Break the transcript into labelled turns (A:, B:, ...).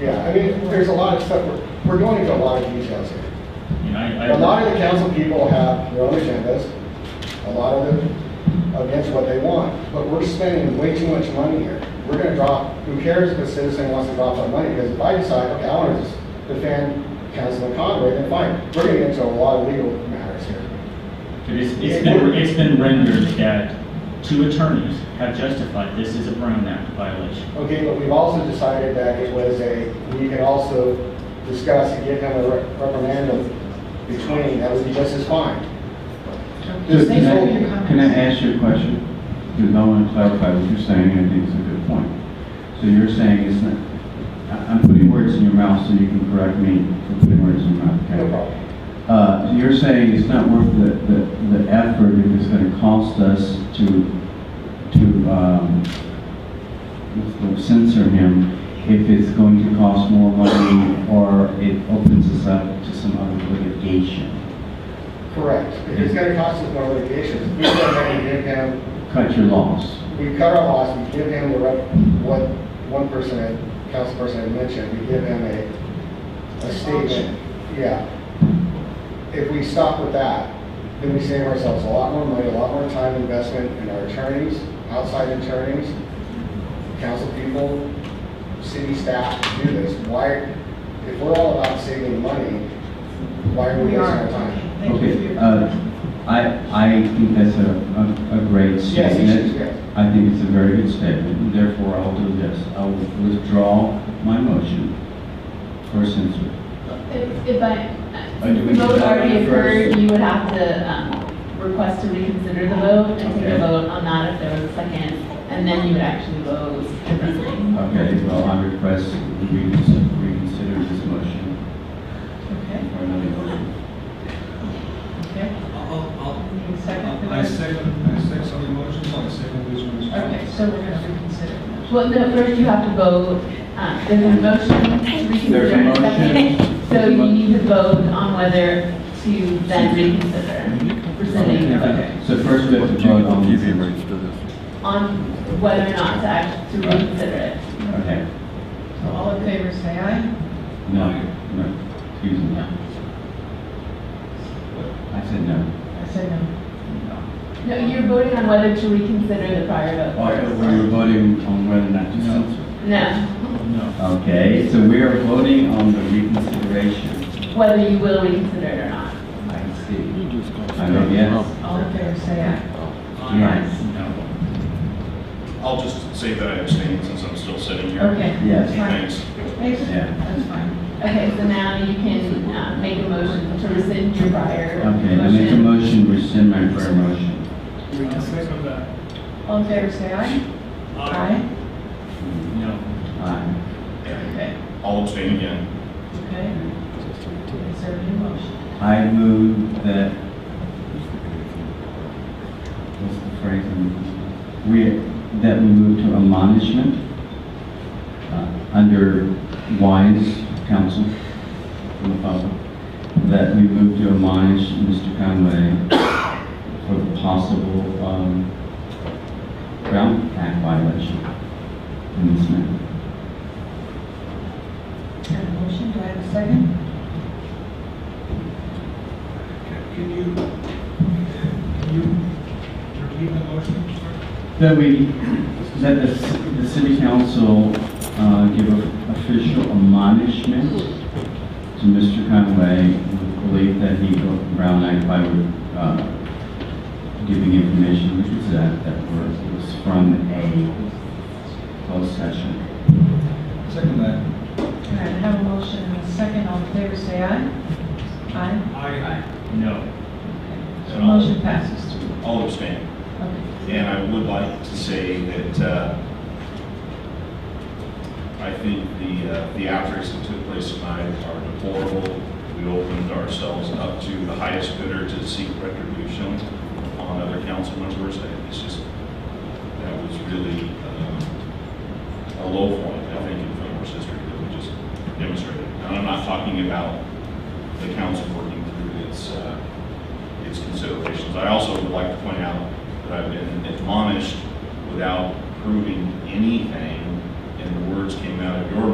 A: Yeah, I mean, there's a lot of stuff, we're- we're going into a lot of details here.
B: And I, I.
A: A lot of the council people have their own agendas, a lot of them against what they want, but we're spending way too much money here. We're gonna drop, who cares if a citizen wants to drop our money, because if I decide, okay, I wanna just defend Councilman Conway, then fine, we're gonna get into a lot of legal matters here.
B: But it's, it's been, it's been rendered that two attorneys have justified this is a Brown Act violation.
A: Okay, but we've also decided that it was a, we can also discuss and give him a re- reprimand of between, that would be just as fine.
C: Just,
A: Thanks
C: can
A: for
C: I,
A: your
C: can I ask you a question? Because I want to clarify what you're saying, and I think it's a good point. So you're saying it's not, I- I'm putting words in your mouth, so you can correct me for putting words in your mouth, okay?
A: No problem.
C: Uh, so you're saying it's not worth the, the, the effort if it's gonna cost us to, to, um, what's the word, censor him, if it's going to cost more money, or it opens us up to some other litigation.
A: Correct. If it's gonna cost us more litigation, we go ahead and give him
C: Cut your loss.
A: we cut our loss, we give him the rep, what one person, had- council person had mentioned, we give him a, a statement. Yeah. If we stop with that, then we save ourselves a lot more money, a lot more time investment in our attorneys, outside attorneys, council people, city staff to do this. Why, if we're all about saving money, why are we
D: We
A: wasting
D: are.
A: our time?
D: Thank you for
C: Okay,
D: your-
C: uh, I, I think that's a, a- a great
A: Yes,
C: statement.
A: yes, yes.
C: I think it's a very good statement, and therefore I'll do this. I will withdraw my motion for censure.
E: If if I,
C: Oh, do we
E: the vote
C: do that
E: already
C: first?
E: occurred, you would have to um, request to reconsider the vote and take
C: Okay.
E: a vote on that if there was a second, and then you would actually vote differently.
C: Okay, well, I request we reconsider reconsider this motion
D: Okay,
C: for another motion.
D: okay.
F: I'll,
D: Any second for
F: I'll, I
D: this?
F: second, I second some emotions, I second this one.
D: Okay, so we're going to reconsider.
E: Well, no, first you have to vote, uh, there's a motion to reconsider.
C: There's a
E: and
C: motion.
E: second. So you need to vote on whether to then reconsider, rescinding the vote,
C: Mm-hmm. Okay, So first we have to vote on the censure.
E: on whether or not to act, to reconsider it.
C: Okay,
D: So all in favor, say aye.
C: no, no, excuse me. I said no.
D: I say no.
E: No, you're voting on whether to reconsider the prior
C: Oh, I
E: vote.
C: thought we were voting on whether or not to censor.
E: No.
B: No.
C: Okay, so we are voting on the reconsideration.
E: whether you will reconsider it or not.
C: I see. I vote yes.
D: All in favor, say aye.
C: Yes.
B: No.
G: I'll just say that I abstained since I'm still sitting here.
D: Okay.
C: Yes.
D: That's fine.
G: Thanks.
D: Thanks.
C: Yeah.
D: That's fine.
E: Okay, so now you can uh, make a motion to rescind your prior
C: Okay, I make a
E: motion.
C: motion to rescind my prior motion.
F: I'll second that.
D: All in favor, say aye. Aye.
B: No.
C: Aye.
D: Okay.
G: I'll abstain again.
D: Okay. Is there a new motion?
C: I move that, what's the phrase? I'm- We, that we move to admonishment uh, under wise counsel from the public, that we move to admonish Mr. Conway for the possible um, Brown Act violation in this matter.
D: Got a motion, do I have a second?
F: Can you, can you repeat the motion, sir?
C: That we, that the, c- the city council uh, give a- official admonishment to Mr. Conway with belief that he broke the Brown Act by uh, giving information, which is that, that was, was from a closed session.
F: Second that.
D: All right, I have a motion and a second, all in favor, say aye. Aye.
F: Aye.
B: No.
D: So motion passes.
G: I'll abstain.
D: Okay.
G: And I would like to say that uh, I think the, uh, the outbreaks that took place tonight are deplorable. We opened ourselves up to the highest bidder to seek retribution on other council members. I think It's just, that was really um, a low point, I think, in Fillmore's history that we just demonstrated. And I'm not talking about the council working through its, uh, its considerations. I also would like to point out that I've been admonished without proving anything, and the words came out of your